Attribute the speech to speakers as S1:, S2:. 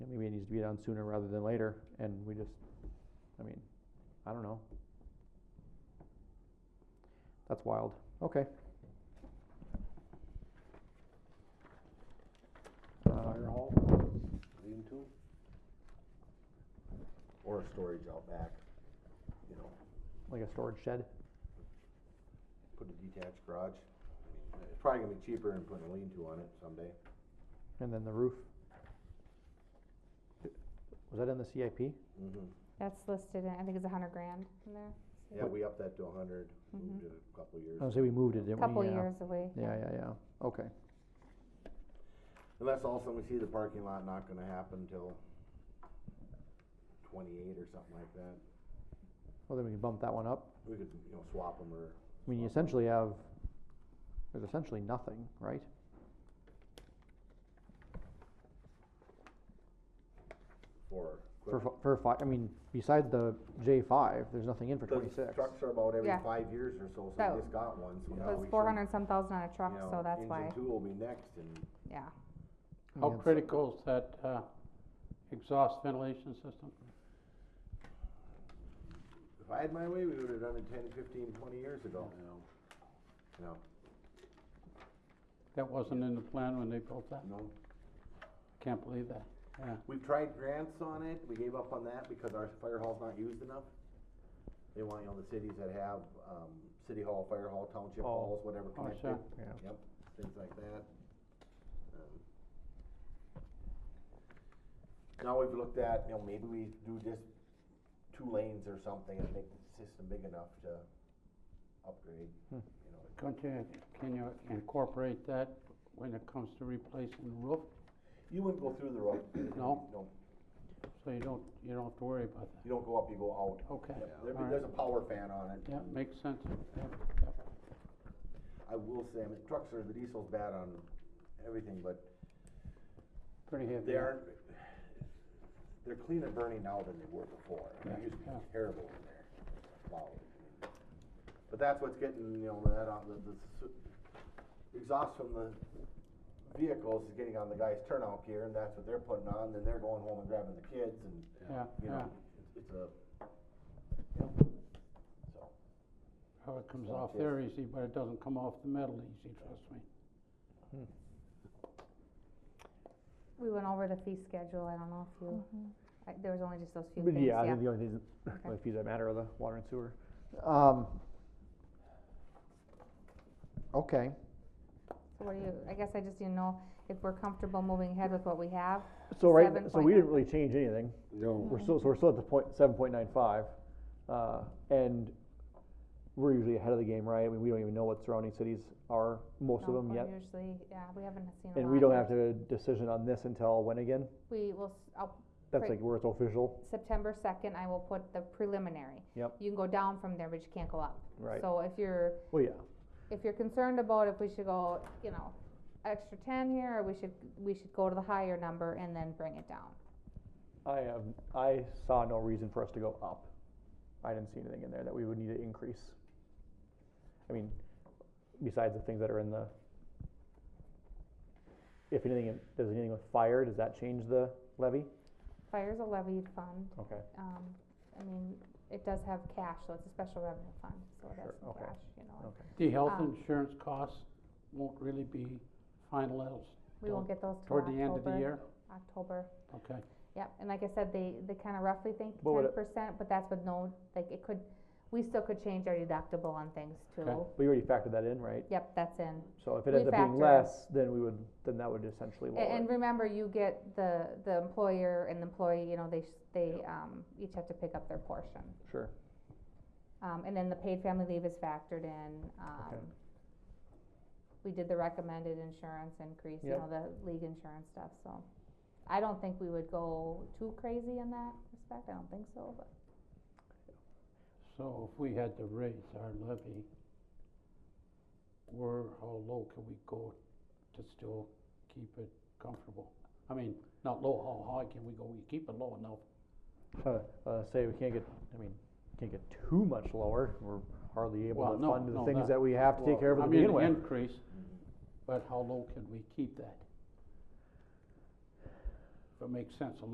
S1: needs to be done sooner rather than later, and we just, I mean, I don't know. That's wild, okay.
S2: Fire
S1: Uh,
S2: hall, lean to. Or storage out back, you know,
S1: Like a storage shed,
S2: put a detached garage. I mean, It's probably gonna be cheaper than putting a lean to on it someday.
S1: and then the roof. Was that in the CIP?
S2: Mm-hmm.
S3: That's listed in, I think it's a hundred grand in there,
S2: Yeah, we upped that to a hundred, moved
S3: Mhm.
S2: it a couple years.
S1: I was say we moved it, didn't we?
S3: couple
S1: Yeah.
S3: years away.
S1: Yeah, yeah, yeah, okay.
S2: And that's also, we see the parking lot not gonna happen till twenty-eight or something like that.
S1: Well, then we can bump that one up.
S2: We could, you know, swap them or,
S1: I mean, you essentially have, there's essentially nothing, right?
S2: or.
S1: For, fi- for five, I mean, besides the J five, there's nothing in for
S2: Because
S1: twenty-six.
S2: Trucks are about every
S3: Yeah.
S2: five years or so, so
S3: So,
S2: we just got one, so now
S3: It
S2: we
S3: was
S2: should,
S3: four hundred some thousand on a truck,
S2: you know,
S3: so that's why,
S2: Engine two will be next and
S1: I
S3: yeah.
S4: How
S1: mean,
S3: Oh,
S1: it's-
S4: critical is that uh, exhaust ventilation system?
S2: If I had my way, we would've done it 10, 15, 20 years ago. No,
S4: That wasn't in the plan when they built that?
S2: no.
S4: Can't believe that, yeah.
S2: We've tried grants on it, we gave up on that because our fire hall's not used enough. They want, you know, the cities that have, um, city hall, fire hall, township
S1: Oh.
S2: halls, whatever
S4: Oh,
S2: connected,
S4: sure.
S1: Yeah.
S2: yep, things like that. Um, Now we've looked at, you know, maybe we do just two lanes or something and make the system big enough to upgrade,
S1: Hmm.
S2: you know.
S4: Can't you, can you incorporate that when it comes to replacing the roof?
S2: You wouldn't go through the road.
S4: No.
S2: No,
S4: So you don't, you don't have to worry about that.
S2: you don't go up, you go out.
S4: Okay,
S2: Yep, There'd be,
S4: all
S2: there's
S4: right.
S2: a power fan on it.
S4: Yeah, makes sense. Yeah, yeah.
S2: I will say, I mean, trucks are, the diesel's bad on everything, but
S4: Pretty heavy.
S2: they aren't, they're cleaner burning now than they were before. I mean, It used to be
S4: Yeah.
S2: terrible in there. Wow. But that's what's getting, you know, that on the, the s- exhaust from the vehicles is getting on the guy's turnout gear and that's what they're putting on, then they're going home and grabbing the kids and,
S4: Yeah,
S2: you
S4: yeah.
S2: know, it's- it's a, so.
S4: How it comes
S2: So
S4: off
S2: it
S4: there easy, but it doesn't come off the metal easy, trust me.
S3: We went over the fee schedule, I don't know if you, I- there was only just those few
S1: Mm-hmm. But
S3: things,
S1: I
S3: yeah.
S1: think the only things,
S3: Okay.
S1: only fees that matter are the water and sewer. Um, okay,
S3: So what do you, I guess I just didn't know if we're comfortable moving ahead with what we have,
S1: so right,
S3: Seven
S1: so
S3: point
S1: we didn't
S3: nine. Mm-hmm.
S1: really change anything.
S2: No.
S1: We're still, so we're still at the point, seven point nine five, uh, and we're usually ahead of the game, right? I mean, we don't even know what surrounding cities are, most of
S3: No,
S1: them
S3: we're
S1: yet.
S3: usually, yeah, we haven't seen a lot.
S1: And we don't
S3: yet.
S1: have to decision on this until when again?
S3: We will, s- I'll
S1: That's
S3: Right.
S1: like where it's official,
S3: September second, I will put the preliminary.
S1: Yep.
S3: You can go down from there, but you can't go up.
S1: right?
S3: So if you're,
S1: Well, yeah,
S3: if you're concerned about if we should go, you know, extra ten here, or we should, we should go to the higher number and then bring it down.
S1: I have, I saw no reason for us to go up. I didn't see anything in there that we would need to increase. I mean, besides the things that are in the. If anything, it- does anything with fire, does that change the levy?
S3: Fire's a levy fund,
S1: Okay,
S3: um, I mean, it does have cash, so it's a special revenue fund, so it has
S1: Sure,
S3: some
S1: okay.
S3: cash, you know.
S1: okay.
S4: The health
S3: Um,
S4: insurance costs won't really be finalized
S3: We won't get those till
S4: toward the end of the
S3: October,
S4: year,
S3: October,
S4: okay?
S3: yep, and like I said, they, they kinda roughly think
S1: But would
S3: ten
S1: it-
S3: percent, but that's with no, like, it could, we still could change our deductible on things too.
S1: We already factored that in, right?
S3: Yep, that's in,
S1: So if it
S3: We
S1: ends up being
S3: factor-
S1: less, then we would, then that would essentially
S3: A-
S1: lower it.
S3: and remember, you get the, the employer and the employee, you know, they, s- they, um, each have to pick up their portion.
S1: Sure,
S3: Um, and then the paid family leave is factored in, um, we did the recommended insurance increase, you
S1: Yep.
S3: know, the league insurance stuff, so. I don't think we would go too crazy in that respect, I don't think so, but
S4: So if we had to raise our levy, where, how low can we go to still keep it comfortable? I mean, not low, how high can we go? We keep it low enough.
S1: uh, uh, say we can't get, I mean, can't get too much lower, we're hardly able
S4: Well,
S1: to
S4: no,
S1: fund the
S4: no,
S1: things
S4: that-
S1: that we have to take care of
S4: I
S1: to
S4: mean,
S1: begin
S4: an
S1: with.
S4: increase, but how low can we keep that? If it makes sense, a